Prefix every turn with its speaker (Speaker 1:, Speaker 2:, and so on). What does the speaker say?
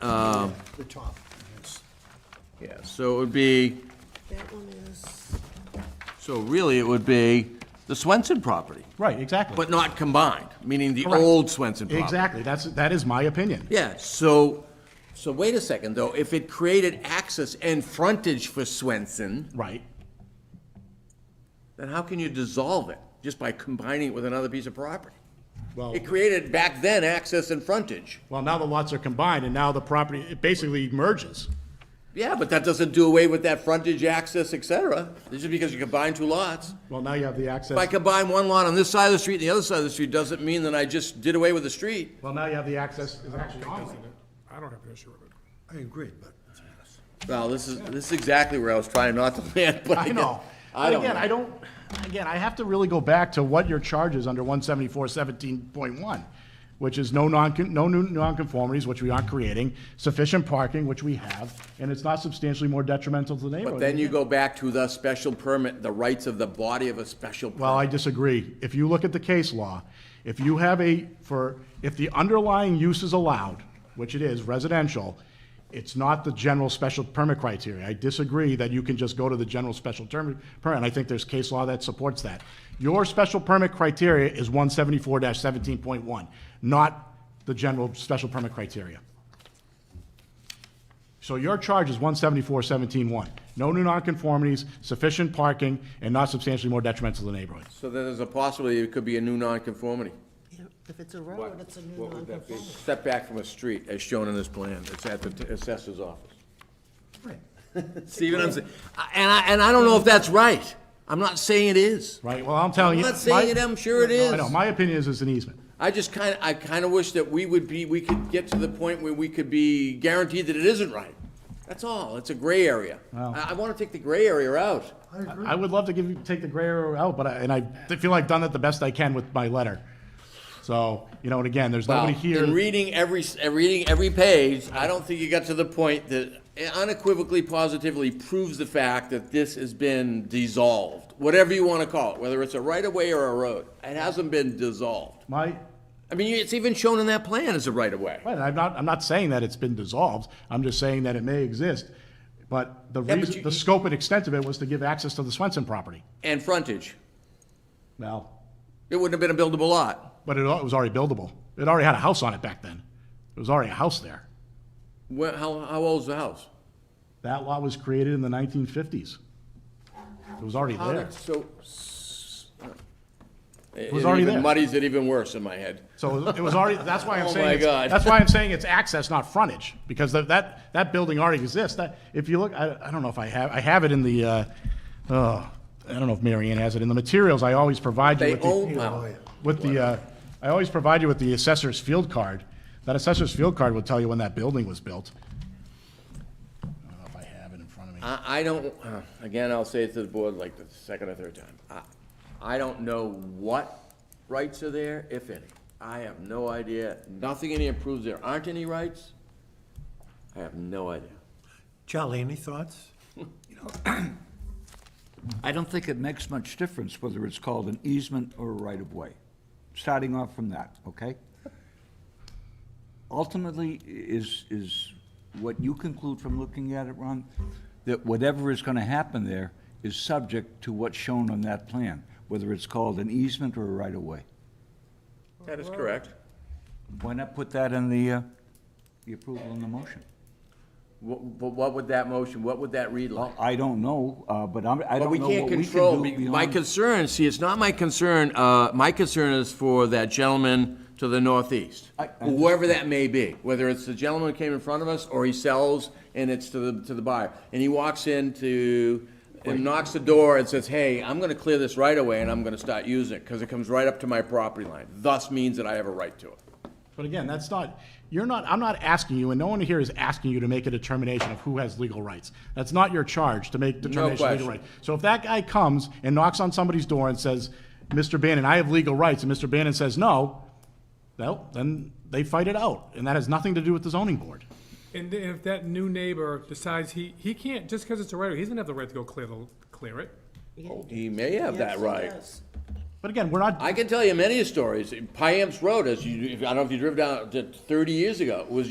Speaker 1: Um,
Speaker 2: the top.
Speaker 1: Yeah, so it would be,
Speaker 2: That one is,
Speaker 1: so really it would be the Swenson property,
Speaker 3: Right, exactly.
Speaker 1: but not combined, meaning the
Speaker 3: Correct.
Speaker 1: old Swenson property.
Speaker 3: Exactly, that's, that is my opinion.
Speaker 1: Yeah, so, so wait a second, though, if it created access and frontage for Swenson,
Speaker 3: Right,
Speaker 1: then how can you dissolve it? Just by combining it with another piece of property?
Speaker 3: well,
Speaker 1: It created back then access and frontage.
Speaker 3: well, now the lots are combined, and now the property, it basically merges.
Speaker 1: Yeah, but that doesn't do away with that frontage, access, et cetera. This is because you combine two lots.
Speaker 3: Well, now you have the
Speaker 1: If I
Speaker 3: access,
Speaker 1: combine one lot on this side of the street and the other side of the street, doesn't mean that I just did away with the street.
Speaker 3: well, now you have the access, is actually online.
Speaker 4: I don't have an issue with it.
Speaker 2: I agree, but
Speaker 1: Well, this is, this is exactly where I was trying not to land, but I
Speaker 3: I
Speaker 1: guess-
Speaker 3: know.
Speaker 1: I
Speaker 3: But again,
Speaker 1: don't,
Speaker 3: I don't, again, I have to really go back to what your charge is under one seventy-four seventeen point one, which is no non, no new nonconformities, which we aren't creating, sufficient parking, which we have, and it's not substantially more detrimental to the neighborhood.
Speaker 1: but then you go back to the special permit, the rights of the body of a special permit.
Speaker 3: Well, I disagree. If you look at the case law, if you have a, for, if the underlying use is allowed, which it is residential, it's not the general special permit criteria. I disagree that you can just go to the general special term, permit, and I think there's case law that supports that. Your special permit criteria is one seventy-four seventeen point one, not the general special permit criteria. So your charge is one seventy-four seventeen one. No new nonconformities, sufficient parking, and not substantially more detrimental to the neighborhood.
Speaker 1: So then there's a possibility it could be a new nonconformity,
Speaker 2: you know, if it's a road, it's a new non-conformity.
Speaker 1: setback from a street as shown in this plan. It's at the assessor's office.
Speaker 2: Right.
Speaker 1: See what I'm saying? And I, and I don't know if that's right. I'm not saying it is.
Speaker 3: Right, well, I'm telling
Speaker 1: I'm
Speaker 3: you.
Speaker 1: not saying
Speaker 3: my-
Speaker 1: it, I'm sure it
Speaker 3: I
Speaker 1: is.
Speaker 3: know, my opinion is it's an easement.
Speaker 1: I just kind of, I kind of wish that we would be, we could get to the point where we could be guaranteed that it isn't right. That's all. It's a gray area. I, I want to take the gray area out.
Speaker 2: I agree.
Speaker 3: I would love to give you, take the gray area out, but I, and I feel I've done that the best I can with my letter. So, you know, and again, there's nobody
Speaker 1: Wow. In
Speaker 3: here,
Speaker 1: reading every, s- uh, reading every page, I don't think you got to the point that unequivocally, positively proves the fact that this has been dissolved, whatever you want to call it, whether it's a right-of-way or a road. It hasn't been dissolved.
Speaker 3: my,
Speaker 1: I mean, it's even shown in that plan as a right-of-way.
Speaker 3: right, and I'm not, I'm not saying that it's been dissolved, I'm just saying that it may exist. But the
Speaker 1: Yeah, but
Speaker 3: reason,
Speaker 1: you-
Speaker 3: the scope and extent of it was to give access to the Swenson property.
Speaker 1: And frontage.
Speaker 3: Now,
Speaker 1: It wouldn't have been a buildable lot.
Speaker 3: but it al- it was already buildable. It already had a house on it back then. There was already a house there.
Speaker 1: Where, how, how old's the house?
Speaker 3: That lot was created in the nineteen fifties. It was already there.
Speaker 1: So. It
Speaker 3: was already
Speaker 1: even
Speaker 3: there.
Speaker 1: Muddies it even worse in my head.
Speaker 3: So it was already, that's why I'm
Speaker 1: Oh
Speaker 3: saying.
Speaker 1: my
Speaker 3: it's-
Speaker 1: God.
Speaker 3: That's why I'm saying it's access, not frontage, because that, that, that building already exists. That, if you look, I, I don't know if I have, I have it in the, uh, oh, I don't know if Mary Ann has it, in the materials, I always provide you
Speaker 1: They
Speaker 3: with the,
Speaker 1: own, wow.
Speaker 3: with the, uh, I always provide you with the assessor's field card. That assessor's field card will tell you when that building was built. I don't know if I have it in front of me.
Speaker 1: I, I don't, uh, again, I'll say it to the board like the second or third time. I, I don't know what rights are there, if any. I have no idea. Nothing in here proves there aren't any rights. I have no idea.
Speaker 2: Charlie, any thoughts?
Speaker 5: I don't think it makes much difference whether it's called an easement or a right-of-way, starting off from that, okay? Ultimately, i- is, is what you conclude from looking at it, Ron, that whatever is gonna happen there is subject to what's shown on that plan, whether it's called an easement or a right-of-way.
Speaker 1: That is correct.
Speaker 5: Why not put that in the, uh, the approval in the motion?
Speaker 1: What, but what would that motion, what would that read like?
Speaker 5: Well, I don't know, uh, but I'm,
Speaker 1: But
Speaker 5: I don't
Speaker 1: we
Speaker 5: know what we
Speaker 1: can't
Speaker 5: can do
Speaker 1: control, my
Speaker 5: beyond-
Speaker 1: concern, see, it's not my concern, uh, my concern is for that gentleman to the northeast.
Speaker 5: I- I
Speaker 1: Whoever that may be, whether it's the gentleman who came in front of us, or he sells and it's to the, to the buyer. And he walks into, and knocks the door and says, hey, I'm gonna clear this right away and I'm gonna start using it, cause it comes right up to my property line. Thus means that I have a right to it.
Speaker 3: But again, that's not, you're not, I'm not asking you, and no one here is asking you to make a determination of who has legal rights. That's not your charge, to make determination of legal
Speaker 1: question.
Speaker 3: rights. So if that guy comes and knocks on somebody's door and says, Mr. Bannon, I have legal rights, and Mr. Bannon says no, well, then they fight it out, and that has nothing to do with the zoning board.
Speaker 4: And then if that new neighbor decides he, he can't, just because it's a right, he doesn't have the right to go clear the, clear it.
Speaker 1: He may have that right.
Speaker 3: But again, we're not,
Speaker 1: I can tell you many stories. Piamps Road, as you, I don't know if you drove down, it thirty years ago, was